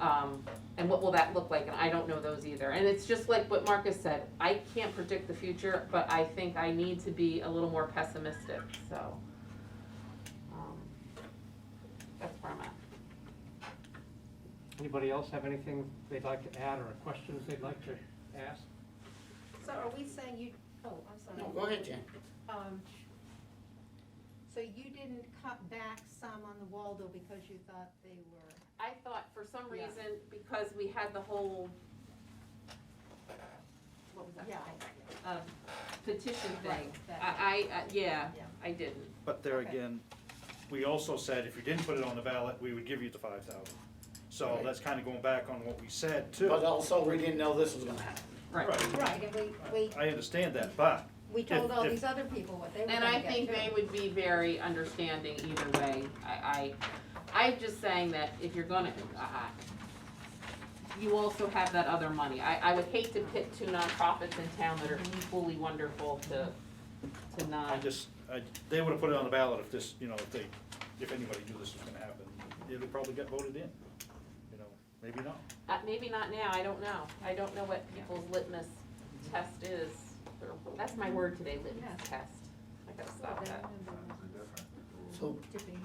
um, what will that look like? And I don't know those either. And it's just like what Marcus said, I can't predict the future, but I think I need to be a little more pessimistic, so. um, That's where I'm at. Anybody else have anything they'd like to add or questions they'd like to ask? So are we saying you, oh, I'm No, sorry. go ahead, Jen. Um, So you didn't cut back some on the Waldo because you thought they were, I thought for some Yeah. reason, because we had the whole, what was that? yeah, Um, petition thing. Right, that- I, I, uh, yeah, Yeah. I didn't. But there Okay. again, we also said if you didn't put it on the ballot, we would give you the five thousand. So Right. that's kind of going back on what we said too. But also, we didn't know this was gonna happen. Right, right, and we, we, I understand that, but we told If- all if- these other people what they were And gonna I get think they too. would be very understanding either way. I, I, I'm just saying that if you're gonna, I, I- you also have that other money. I, I would hate to pit two nonprofits in town that are equally wonderful to, to I not. just, I, they would have put it on the ballot if this, you know, if they, if anybody knew this was gonna happen. It'll probably get voted in, you know, maybe not. Uh, maybe not now, I don't know. I don't know what people's litmus test is. That's my word today, Yeah. litmus test. I gotta Well, stop they that. remember So, to be here.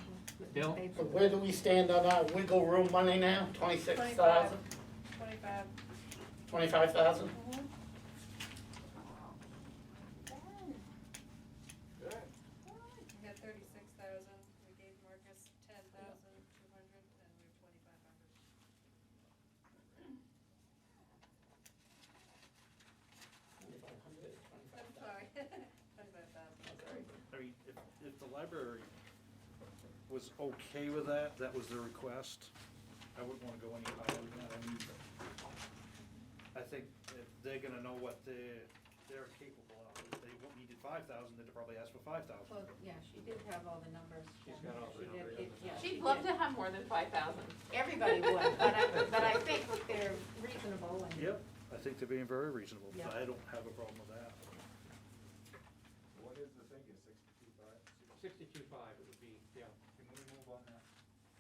Bill? They- so where do we stand on our wiggle room money now? Twenty-six thousand, Twenty-five. twenty-five thousand? We had thirty-six thousand, we gave Marcus ten thousand two hundred, and we have twenty-five hundred. I'm sorry, twenty-five thousand. I mean, if, if the library was okay with that, that was their request, I wouldn't wanna go any higher than that, I mean, I think if they're gonna know what they're, they're capable of, if they won't needed five thousand, they'd probably ask for five thousand. Well, yeah, she did have all the numbers. She's got all the She did- numbers. it- yeah, she She'd love did. to have more than five thousand. Everybody would, but I, but I think they're reasonable and. Yep, I think they're being very reasonable, Yeah. I don't have a problem with that. What is the figure, sixty-two five? Sixty-two-five it would be, yeah. Can we move on now?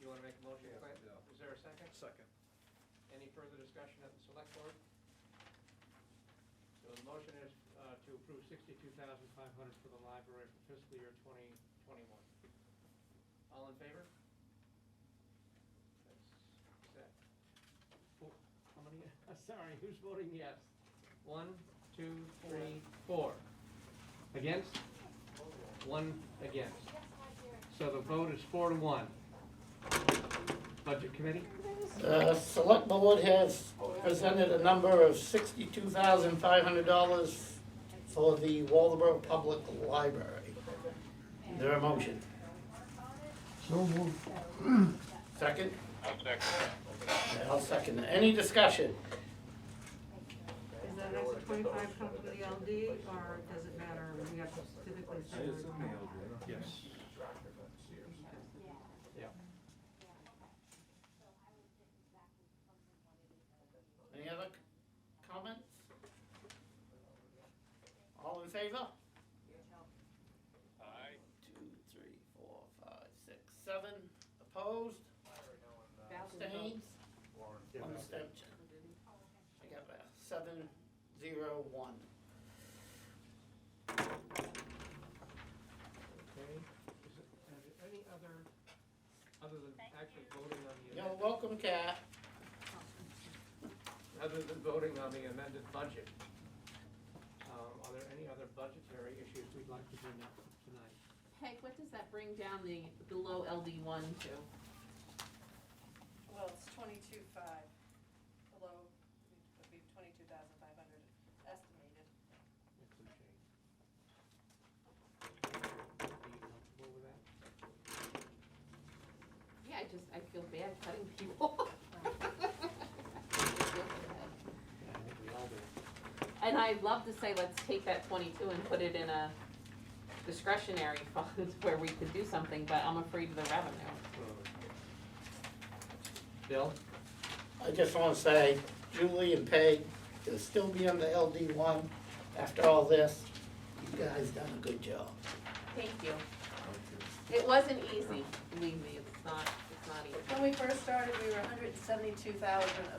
You wanna make a motion, Yeah, Clint? yeah. Is there a second? Second. Any further discussion at the select board? So the motion is uh, to approve sixty-two thousand five hundred for the library for fiscal year twenty twenty-one. All in favor? That's- is that- oh, How many, sorry, who's voting yes? One, two, three, four. Against? One against. So the vote is four to one. Budget committee? The select board has presented a number of sixty-two thousand five hundred dollars for the Waldeboro Public Library. Is there a motion? So moved. 2nd I'll second. it. Any discussion? Is that extra twenty-five come from the LD, or does it matter, we have to specifically say? Yes. Any other comments? All in favor? Aye. Two, three, four, five, six, seven, opposed, abstained, one abstention. I got that, seven, zero, one. Okay, is it, are there any other, other than actually voting on the, You're amend- welcome, Cat. other than voting on the amended budget? Um, are there any other budgetary issues we'd like to bring up tonight? Peg, what does that bring down the below LD one to? Well, it's twenty-two five, below, would be twenty-two thousand five hundred estimated. If we change? Are you comfortable with that? Yeah, I just, I feel bad cutting people. Yeah, I think we all do. And I'd love to say, let's take that twenty-two and put it in a discretionary fund where we could do something, but I'm afraid of the revenue. Bill? I just wanna say, Julie and Peg, you'll still be on the LD one after all this. You guys done a good job. Thank you. It wasn't easy, believe me, it's not, it's not easy. When we first started, we were hundred and seventy-two thousand